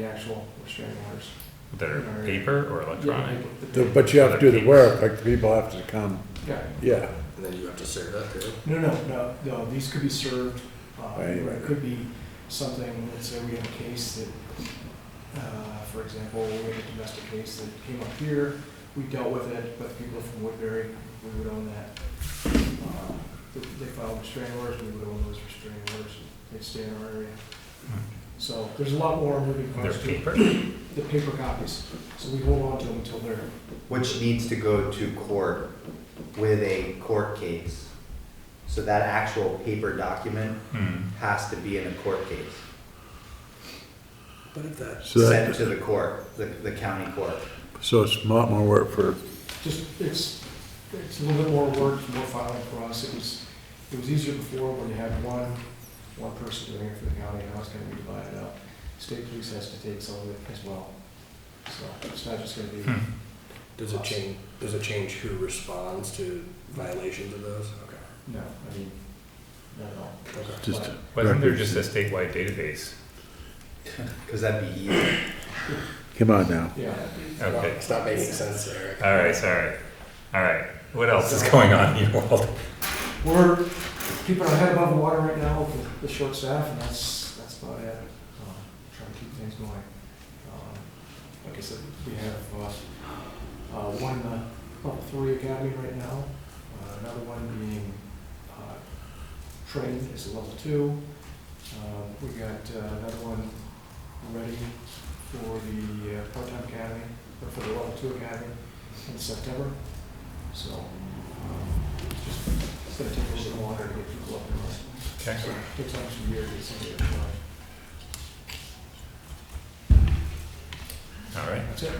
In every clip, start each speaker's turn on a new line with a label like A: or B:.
A: actual restraining orders.
B: that are paper or electronic?
C: The- But you have to do the work, like the people have to come,
A: Yeah,
C: yeah,
D: And then you have to serve that too.
A: no, no, no, no, these could be served, uh, or
C: Right,
A: it
C: right.
A: could be something, let's say we have a case that, uh, for example, we had a domestic case that came up here, we dealt with it, but the people from Woodbury, we would own that. Uh, they- They filed restraining orders, we would own those restraining orders, they'd stay in our area. So there's a lot more moving
B: Hmm. They're
A: parts to it.
B: paper?
A: the paper copies, so we hold on to them until they're
E: which needs to go to court with a court case. So that actual paper document
B: Hmm.
E: has to be in a court case,
D: But if that,
C: so
E: sent
C: that,
E: to the court, the, the county court.
C: so it's a lot more work for,
A: just, it's, it's a little bit more work, more filing for us. It was, it was easier before when you had one, one person doing it for the county, and now it's gonna be divided up. State police has to take some of it as well. So it's not just gonna be,
B: Hmm.
D: does it change, does it change who responds to violations of those? Okay,
A: no, I mean, not at all.
D: okay.
C: just,
A: But
B: Wasn't there just a statewide database?
E: Cause that'd be easy.
C: come on now.
A: Yeah,
B: Okay.
D: It's not making sense there.
B: All right, sorry. All right, what else is going on in your world?
A: we're keeping our head above water right now with the short staff, and that's, that's about it. Um, Trying to keep things going. Um, Like I said, we have, uh, uh, one, uh, level three academy right now, uh, another one being, uh, trained as a level two. Uh, we got uh, another one ready for the uh, part-time academy, or for the level two academy in September. So, um, it's just it's gonna take a little bit longer to get people up and running.
B: Okay.
A: So it Takes almost a year to get somebody up and running.
B: All right,
A: That's it.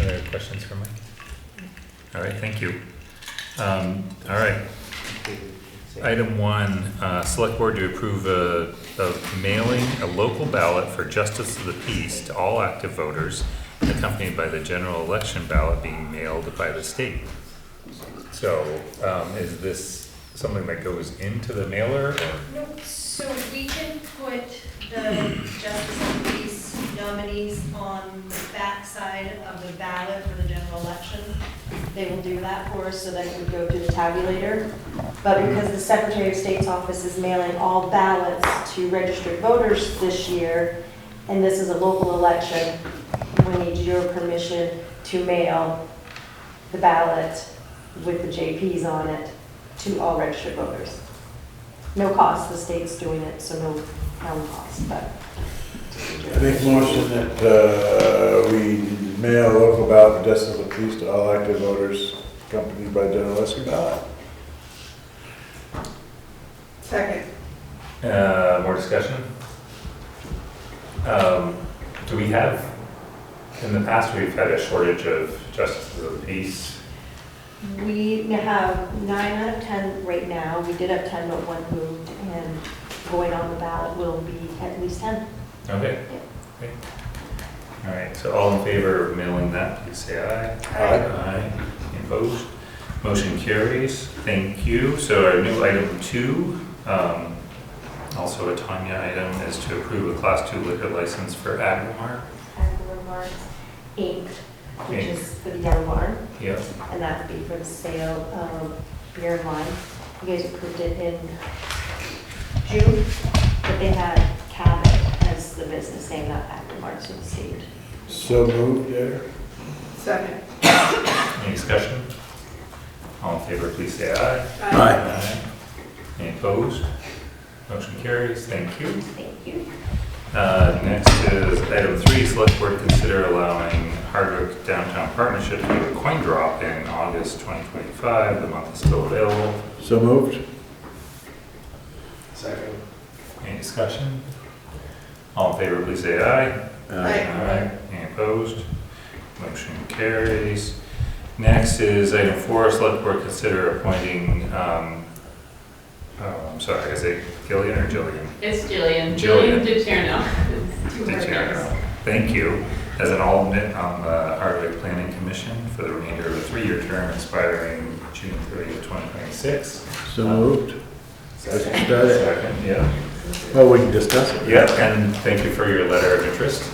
B: other questions for Mike? All right, thank you. Um, all right, item one, uh, select board to approve a, of mailing a local ballot for justice of the peace to all active voters accompanied by the general election ballot being mailed by the state. So, um, is this something that goes into the mailer or?
F: No, so we can put the Justice of the Peace nominees on the backside of the ballot for the general election. They will do that for us so that it would go to the tabulator. But because the Secretary of State's office is mailing all ballots to registered voters this year, and this is a local election, we need your permission to mail the ballot with the JPs on it to all registered voters. No cost, the state's doing it, so no town cost, but.
C: I make motion that, uh, we mail local ballot for justice of the peace to all active voters accompanied by general election ballot.
G: Second.
B: Uh, more discussion? Um, do we have, in the past, we've had a shortage of justices of the peace.
F: We have nine out of 10 right now. We did have 10, but one moved, and going on the ballot will be at least 10.
B: Okay. Great. All right, so all in favor of mailing that, please say aye. Aye. Any Opposed? Motion carries. Thank you. So our new item two, um, also a Tanya item, is to approve a class two liquor license for Agmar.
F: Agro Mart Inc., which
B: Inc.
F: is for the Yellow Barn.
B: Yep.
F: and that would be for the sale of beer and wine. You guys approved it in June, but they had Cabot as the business name, not Acton Marks with the state.
C: So moved, Derek?
G: Second.
B: Any discussion? All in favor, please say aye.
G: Aye.
B: Any opposed? Motion carries, thank you.
F: Thank you.
B: Uh, Next is item three, select board consider allowing Hardwick Downtown Partnership to do a coin drop in August 2025. The month is still available.
C: So moved?
D: Second.
B: Any discussion? All in favor, please say aye.
G: Aye.
B: Any opposed? Motion carries. Next is item four, select board consider appointing, um, oh, I'm sorry, is it Gillian or Jillian?
H: It's Jillian.
B: Jillian.
H: Jillian DiTierno. It's two
B: Did you
H: hard names.
B: know? Thank you. As an alternate on the Hardwick Planning Commission for the remainder of a three-year term expiring June 30th, 2026.
C: So moved? That's
D: Second.
C: about it.
B: Second, yeah.
C: Well, we can discuss it.
B: Yeah, and thank you for your letter of interest.